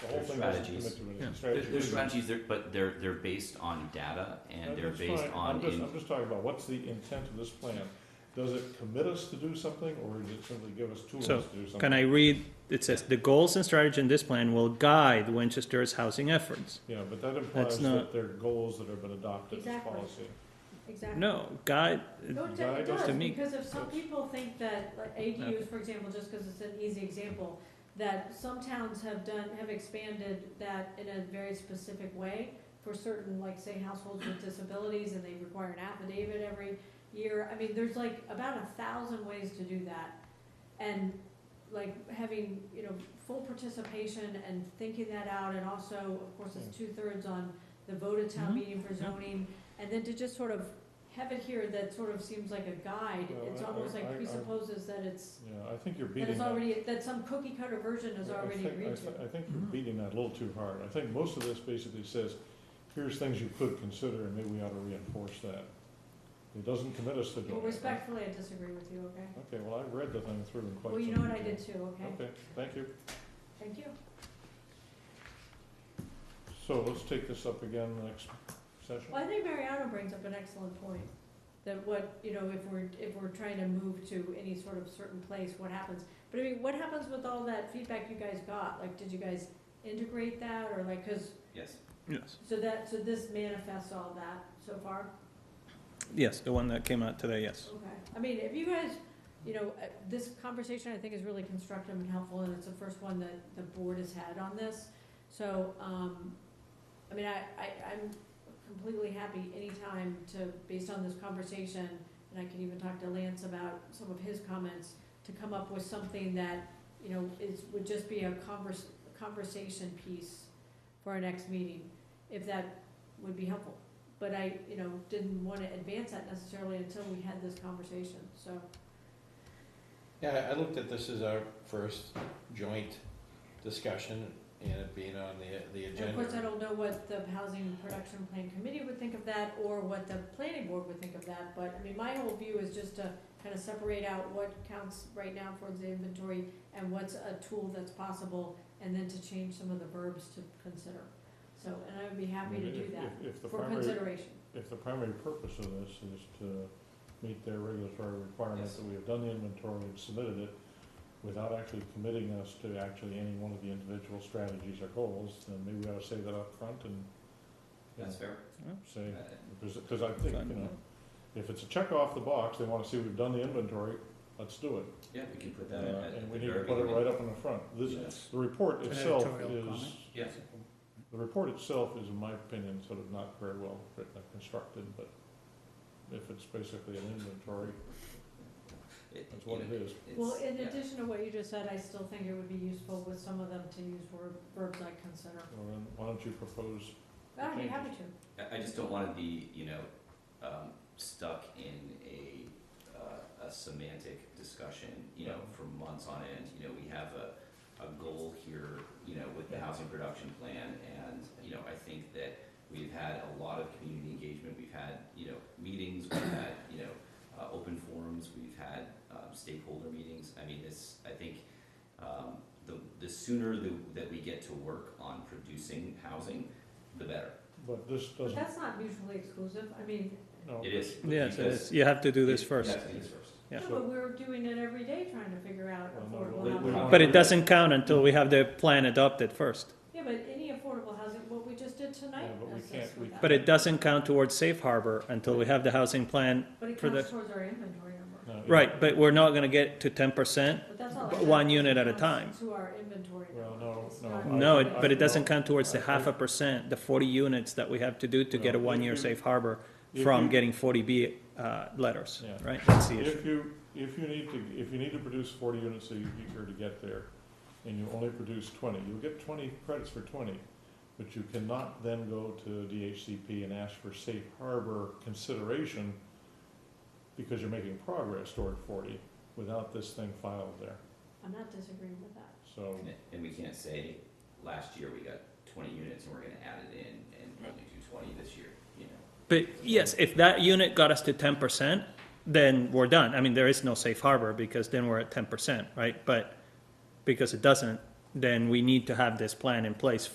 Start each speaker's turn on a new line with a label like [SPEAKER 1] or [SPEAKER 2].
[SPEAKER 1] The whole
[SPEAKER 2] Their
[SPEAKER 1] thing doesn't
[SPEAKER 2] strategies.
[SPEAKER 1] commit to
[SPEAKER 3] Yeah.
[SPEAKER 1] anything.
[SPEAKER 2] There's,
[SPEAKER 1] Strategies.
[SPEAKER 2] strategies, there, but they're they're based on data and they're
[SPEAKER 1] That's
[SPEAKER 2] based
[SPEAKER 1] fine.
[SPEAKER 2] on
[SPEAKER 1] I'm just,
[SPEAKER 2] in,
[SPEAKER 1] I'm just talking about what's the intent of this plan? Does it commit us to do something or does it simply give us tools to
[SPEAKER 3] So,
[SPEAKER 1] do something?
[SPEAKER 3] Can I read, it says, "The goals and strategy in this plan will guide Winchester's housing efforts."
[SPEAKER 1] Yeah, but that implies that
[SPEAKER 3] not-
[SPEAKER 1] they're goals that have been adopted as
[SPEAKER 4] Exactly.
[SPEAKER 1] policy.
[SPEAKER 4] Exactly.
[SPEAKER 3] No, guide,
[SPEAKER 4] No,
[SPEAKER 1] Guide
[SPEAKER 4] it does,
[SPEAKER 1] us
[SPEAKER 4] it
[SPEAKER 3] to
[SPEAKER 4] does,
[SPEAKER 3] meet-
[SPEAKER 4] because if some people think that, like
[SPEAKER 3] Okay.
[SPEAKER 4] ADUs, for example, just because it's an easy example, that some towns have done, have expanded that in a very specific way for certain, like, say, households with disabilities, and they require an affidavit every year. I mean, there's like about a thousand ways to do that. And like having, you know, full participation and thinking that out, and also, of course, it's two-thirds on the vote at town
[SPEAKER 3] Mhm.
[SPEAKER 4] meeting for
[SPEAKER 3] Yeah.
[SPEAKER 4] zoning, and then to just sort of have it here that sort of seems like a guide,
[SPEAKER 1] Well,
[SPEAKER 4] it's
[SPEAKER 1] I-
[SPEAKER 4] almost
[SPEAKER 1] I- I- I-
[SPEAKER 4] like presupposes that it's,
[SPEAKER 1] Yeah, I think you're
[SPEAKER 4] that
[SPEAKER 1] beating
[SPEAKER 4] it's
[SPEAKER 1] that.
[SPEAKER 4] already, that some cookie cutter version is
[SPEAKER 1] I- I
[SPEAKER 4] already
[SPEAKER 1] think- I
[SPEAKER 4] agreed
[SPEAKER 1] thi-
[SPEAKER 4] to.
[SPEAKER 1] I think you're beating that a little too hard. I think most of this basically says, here's things you could consider and maybe we ought to reinforce that. It doesn't commit us to doing
[SPEAKER 4] Well,
[SPEAKER 1] it.
[SPEAKER 4] respectfully, I disagree with you, okay?
[SPEAKER 1] Okay, well, I've read the thing through in quite some
[SPEAKER 4] Well,
[SPEAKER 1] detail.
[SPEAKER 4] you know what I did too, okay?
[SPEAKER 1] Okay, thank you.
[SPEAKER 4] Thank you.
[SPEAKER 1] So let's take this up again next session.
[SPEAKER 4] Well, I think Mariano brings up an excellent point, that what, you know, if we're, if we're trying to move to any sort of certain place, what happens? But I mean, what happens with all that feedback you guys got? Like, did you guys integrate that, or like, cause,
[SPEAKER 2] yes.
[SPEAKER 3] yes,
[SPEAKER 4] so that, so this manifests all that so far?
[SPEAKER 3] yes, the one that came out today, yes.
[SPEAKER 4] Okay, I mean, if you guys, you know, uh, this conversation I think is really constructive and helpful, and it's the first one that the board has had on this. So, um, I mean, I, I, I'm completely happy anytime to, based on this conversation, and I can even talk to Lance about some of his comments, to come up with something that, you know, is, would just be a convers, conversation piece for our next meeting, if that would be helpful but I, you know, didn't wanna advance that necessarily until we had this conversation, so.
[SPEAKER 5] Yeah, I I looked at this as our first joint discussion and it being on the, the
[SPEAKER 4] And of course, I
[SPEAKER 5] agenda.
[SPEAKER 4] don't know what the Housing Production Plan Committee would think of that, or what the planning board would think of that, but, I mean, my whole view is just to kinda separate out what counts right now for the inventory, and what's a tool that's possible, and then to change some of the verbs to consider. So, and I would be happy to do that,
[SPEAKER 1] If- If the
[SPEAKER 4] for
[SPEAKER 1] primary,
[SPEAKER 4] consideration.
[SPEAKER 1] if the primary purpose of this is to meet their regulatory requirements,
[SPEAKER 2] Yes.
[SPEAKER 1] that we have done the inventory and submitted it without actually committing us to actually any one of the individual strategies or goals, then maybe we ought to say that up front and, you know,
[SPEAKER 2] That's fair. Uh,
[SPEAKER 1] say, because, because I think, you know, if it's a check off the box, they wanna see we've done the inventory, let's do it.
[SPEAKER 2] yeah, we can put
[SPEAKER 1] Uh,
[SPEAKER 2] that in at,
[SPEAKER 1] And
[SPEAKER 2] at
[SPEAKER 1] we
[SPEAKER 2] the
[SPEAKER 1] need to
[SPEAKER 2] very
[SPEAKER 1] put it
[SPEAKER 2] beginning.
[SPEAKER 1] right up in the front. This,
[SPEAKER 2] Yes.
[SPEAKER 1] the report
[SPEAKER 3] An
[SPEAKER 1] itself
[SPEAKER 3] editorial
[SPEAKER 1] is,
[SPEAKER 3] comment.
[SPEAKER 2] Yes.
[SPEAKER 1] the report itself is, in my opinion, sort of not very well written or constructed, but if it's basically an inventory,
[SPEAKER 2] It-
[SPEAKER 1] that's what
[SPEAKER 2] you
[SPEAKER 1] it
[SPEAKER 2] know,
[SPEAKER 1] is.
[SPEAKER 2] it's-
[SPEAKER 4] Well, in
[SPEAKER 2] yeah.
[SPEAKER 4] addition to what you just said, I still think it would be useful with some of them to use verb, verbs like consider.
[SPEAKER 1] Well, then, why don't you propose,
[SPEAKER 4] I'd be
[SPEAKER 1] Okay.
[SPEAKER 4] happy to.
[SPEAKER 2] I, I just don't want to be, you know, um, stuck in a, uh, a semantic discussion, you know, for months on end. You know, we have a, a goal here, you know, with the housing production plan, and, you know, I think that we've had a lot of community engagement, we've had, you know, meetings, we've had, you know, uh, open forums, we've had, um, stakeholder meetings. I mean, this, I think, um, the, the sooner the, that we get to work on producing housing, the better.
[SPEAKER 1] but this
[SPEAKER 4] But
[SPEAKER 1] doesn't,
[SPEAKER 4] that's not mutually exclusive. I mean,
[SPEAKER 1] no.
[SPEAKER 2] It is.
[SPEAKER 3] Yes, it
[SPEAKER 2] because-
[SPEAKER 3] is, you have to do this
[SPEAKER 2] you-
[SPEAKER 3] first.
[SPEAKER 2] You have to do this first.
[SPEAKER 3] Yeah.
[SPEAKER 4] no, but we're doing it every day trying to figure out
[SPEAKER 1] Well, no,
[SPEAKER 4] affordable
[SPEAKER 1] we- we-
[SPEAKER 4] housing.
[SPEAKER 3] But it doesn't count until we have the plan adopted first.
[SPEAKER 4] Yeah, but any affordable housing, what we just did tonight.
[SPEAKER 1] Yeah, but we
[SPEAKER 4] assists
[SPEAKER 1] can't- we
[SPEAKER 4] with that.
[SPEAKER 3] But it doesn't count towards safe harbor until we have the housing plan.
[SPEAKER 4] But it
[SPEAKER 3] for the-
[SPEAKER 4] counts towards our inventory
[SPEAKER 1] no,
[SPEAKER 4] number.
[SPEAKER 1] it-
[SPEAKER 3] Right, but we're not gonna get to ten percent.
[SPEAKER 4] But that's all.
[SPEAKER 3] But
[SPEAKER 4] it
[SPEAKER 3] one
[SPEAKER 4] counts
[SPEAKER 3] unit at a
[SPEAKER 4] counts
[SPEAKER 3] time.
[SPEAKER 4] To our inventory.
[SPEAKER 1] Well,
[SPEAKER 4] number.
[SPEAKER 1] no,
[SPEAKER 4] It's
[SPEAKER 1] no,
[SPEAKER 4] not-
[SPEAKER 3] No,
[SPEAKER 1] I-
[SPEAKER 3] it- but it doesn't count towards the
[SPEAKER 1] I-
[SPEAKER 3] half a percent, the forty units that we have to do to get a
[SPEAKER 1] Well, if
[SPEAKER 3] one-year
[SPEAKER 1] you-
[SPEAKER 3] safe harbor
[SPEAKER 1] if
[SPEAKER 3] from
[SPEAKER 1] you-
[SPEAKER 3] getting forty B, uh, letters,
[SPEAKER 1] Yeah.
[SPEAKER 3] right? That's the issue.
[SPEAKER 1] If you, if you need to, if you need to produce forty units a year to get there, and you only produce twenty, you'll get twenty credits for twenty, but you cannot then go to DHCP and ask for safe harbor consideration because you're making progress toward forty without this thing filed there,
[SPEAKER 4] I'm not disagreeing with that.
[SPEAKER 1] so.
[SPEAKER 2] And- And we can't say, last year we got twenty units and we're gonna add it in and only do twenty this year, you know?
[SPEAKER 3] But yes, if that unit got us to ten percent, then we're done. I mean, there is no safe harbor because then we're at ten percent, right? But because it doesn't, then we need to have this plan in place